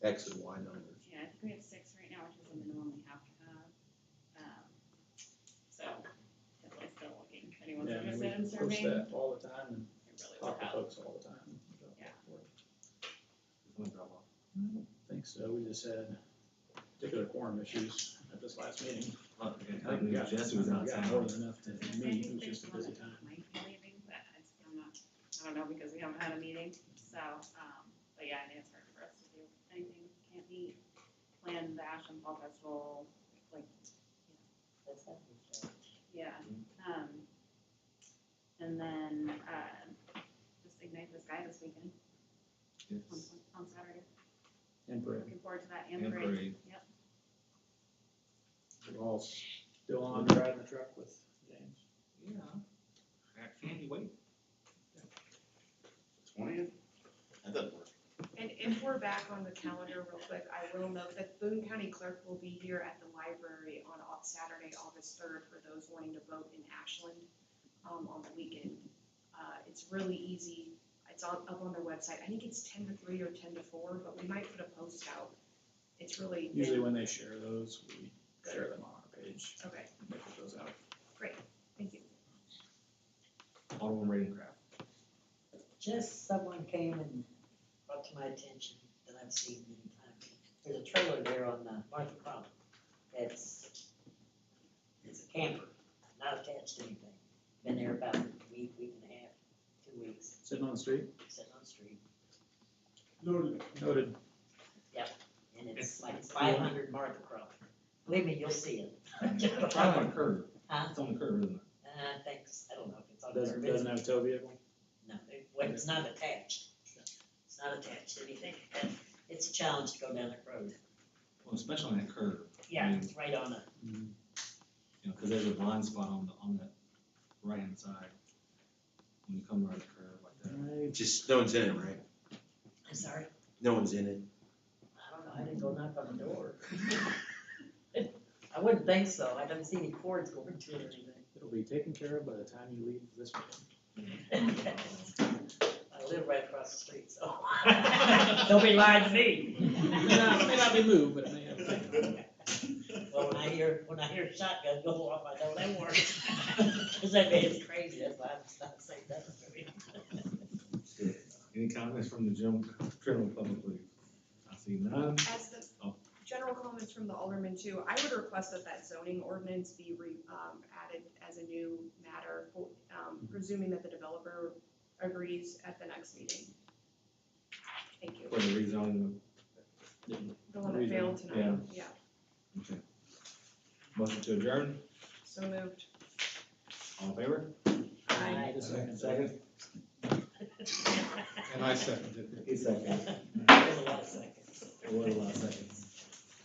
X and Y numbers. Yeah, I think we have six right now, which is the minimum we have to have. Um, So, that's why it's still looking, if anyone's Yeah, and we interested in Post serving, it that all the time and really would talk to help. folks all the time. Yeah. Thanks, so we just had particular quorum issues at this last meeting. I can't believe Jesse was We got more outside. than enough to I was gonna say, I meet, it think was just a there's busy one time. that Might be leaving, but I am not, I don't know, because we haven't had a meeting, so, um, but yeah, I think it's hard for us to do anything, can't meet, plan the Ash and Fall Festival, like, That's happening. Yeah, Mm-hmm. um, and then, uh, just ignite the sky this weekend on, Yes. on Saturday. And Brett, Looking forward to that and And parade. parade. we're all still on driving the truck with James. Yeah. I can't wait. Twentieth? That doesn't work. And if we're back on the calendar real quick, I will note that Boone County Clerk will be here at the library on Au- Saturday, August third, for those wanting to vote in Ashland, um, on the weekend. Uh, it's really easy, it's on, up on their website, I think it's ten to three or ten to four, but we might put a post out. It's really. Usually when they share those, we share them on our page, Okay, they put those out. thank you. Auto and Ravencraft. Just someone came and brought to my attention that I've seen many times. There's a trailer there on uh, Martha Crump that's, it's a camper, not attached to anything. Been there about a week, week and a half, two weeks, Sitting on the street? sitting on the street. Noted. And it's like five hundred Martha Crump. Believe me, you'll see it. It's on Uh, the curb. Huh? Uh, It's on the curb, isn't it? thanks, I don't know if it's on there. Doesn't, doesn't have a tow vehicle? No, it- well, it's not attached. It's not attached to anything. It's a challenge to go down that road. Well, especially on that curb, Yeah, it's right on a, you know, because there's a blind spot on the, on that right hand side. When you come around the curb like that. Just, no one's in it, right? I'm sorry, No one's in it. I don't know, I didn't go knock on the door. I wouldn't think so, I don't see any cords going to it or It'll be taken care of by the time you leave this meeting. anything. I live right across the street, so. Don't be lying to me. It may not- it may not be moved, but it may have. Oh, Well, when I hear, when I hear shotgun go off, I know that works. Cause that man is crazy, that's why I'm not saying that to me. Any comments from the general, general public, please? I see none. As the Oh. general comments from the alderman too, I would request that that zoning ordinance be re, um, added as a new matter, for- um, presuming that the developer agrees at the next meeting. Thank you. For the rezoning. The one that failed tonight, yeah, Okay. Motion to adjourn. so moved. All in favor? Aye. Second. And I seconded it. He's second. There's a lot of seconds. It was a lot of seconds.